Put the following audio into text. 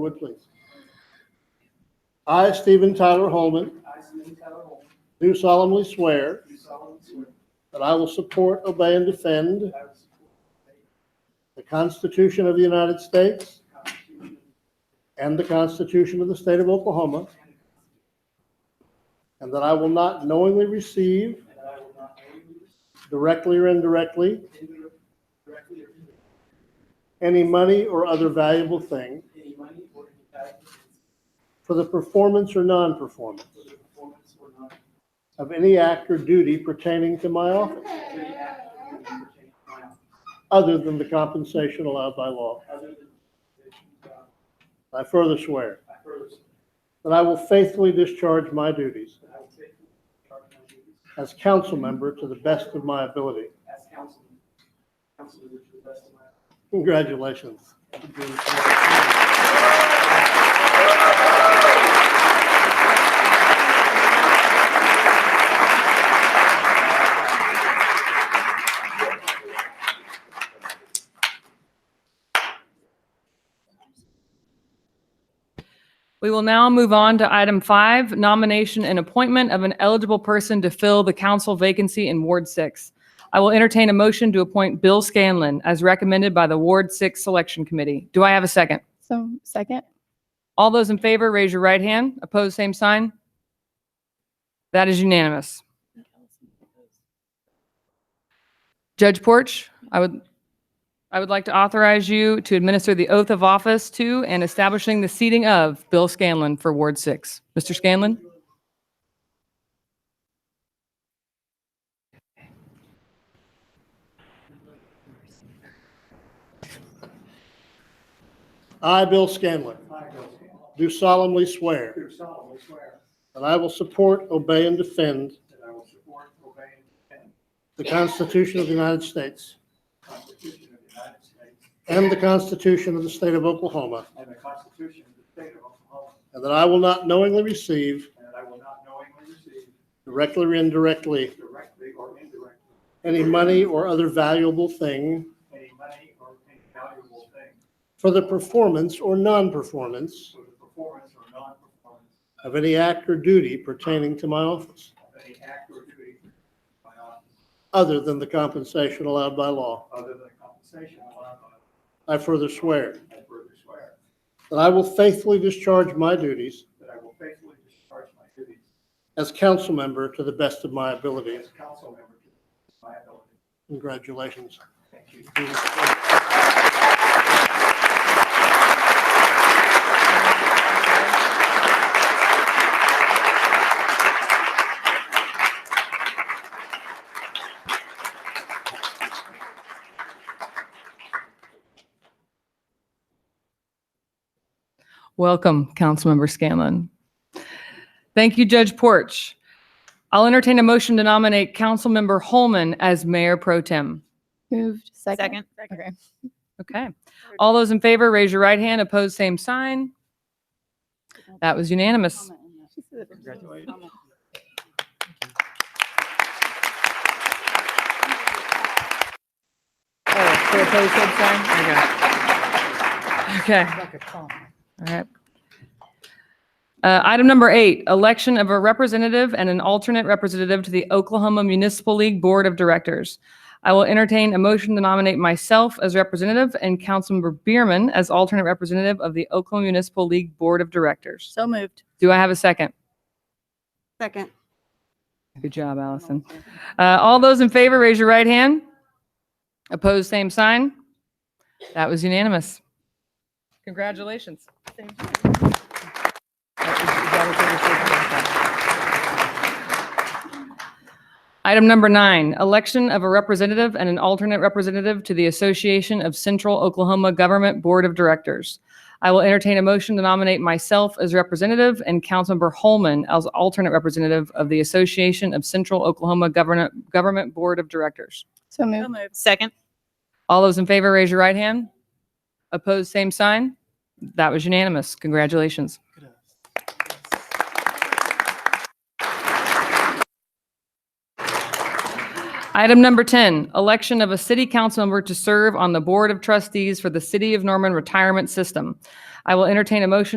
would, please. I, Stephen Tyler Holman, I, Stephen Tyler Holmes, do solemnly swear do solemnly swear that I will support, obey, and defend that I will support the Constitution of the United States the Constitution and the Constitution of the State of Oklahoma, and and the Constitution, that I will not knowingly receive, and that I will not knowingly, directly or indirectly, indirectly, directly or indirectly, any money or other valuable thing any money or any valuable thing for the performance or non-performance for the performance or not, of of any act or duty pertaining to my office, any act or duty pertaining to my office, other than the compensation allowed by law. other than the provisions of, I further swear I further swear that I will faithfully discharge my duties that I will faithfully discharge my duties as council member to the best of my ability. as councilman, councilman to the best of my ability. Congratulations. We will now move on to item five, nomination and appointment of an eligible person to fill the council vacancy in Ward Six. I will entertain a motion to appoint Bill Scanlon as recommended by the Ward Six Selection Committee. Do I have a second? So second, All those in favor, raise your right hand. Opposed, same sign. That is unanimous. Judge Porch, I would, I would like to authorize you to administer the oath of office to and establishing the seating of Bill Scanlon for Ward 6. Mr. Scanlon? I, Bill Scanlon, I, Bill Scanlon, do solemnly swear do solemnly swear that I will support, obey, and defend that I will support, obey, and defend the Constitution of the United States the Constitution of the United States and the Constitution of the State of Oklahoma, and the Constitution of the State of Oklahoma, and that I will not knowingly receive, and that I will not knowingly receive directly or indirectly, directly or indirectly any money or other valuable thing any money or any valuable thing for the performance or non-performance for the performance or non-performance of any act or duty pertaining to my office, of any act or duty by office other than the compensation allowed by law. other than compensation allowed by law. I further swear I further swear that I will faithfully discharge my duties that I will faithfully discharge my duties as council member to the best of my ability. as council member to the best of my ability. Congratulations. Thank you. Welcome, Councilmember Scanlon. Thank you, Judge Porch. I'll entertain a motion to nominate Councilmember Holman as Mayor Pro Tem. moved, second. Second. Okay. Okay. All those in favor, raise your right hand. Opposed, same sign. That was unanimous. Congratulations. Okay. All right. Uh, Item number eight, election of a representative and an alternate representative to the Oklahoma Municipal League Board of Directors. I will entertain a motion to nominate myself as representative and Councilmember Bierman as alternate representative of the Oklahoma Municipal League Board of Directors. So moved. Do I have a second? Second. Good job, Allison. Uh, All those in favor, raise your right hand. Opposed, same sign. That was unanimous. Congratulations. Item number nine, election of a representative and an alternate representative to the Association of Central Oklahoma Government Board of Directors. I will entertain a motion to nominate myself as representative and Councilmember Holman as alternate representative of the Association of Central Oklahoma Government, Government Board of Directors. So So moved, moved. Second. All those in favor, raise your right hand. Opposed, same sign. That was unanimous. Congratulations. Item number 10, election of a city council member to serve on the Board of Trustees for the City of Norman Retirement System. I will entertain a motion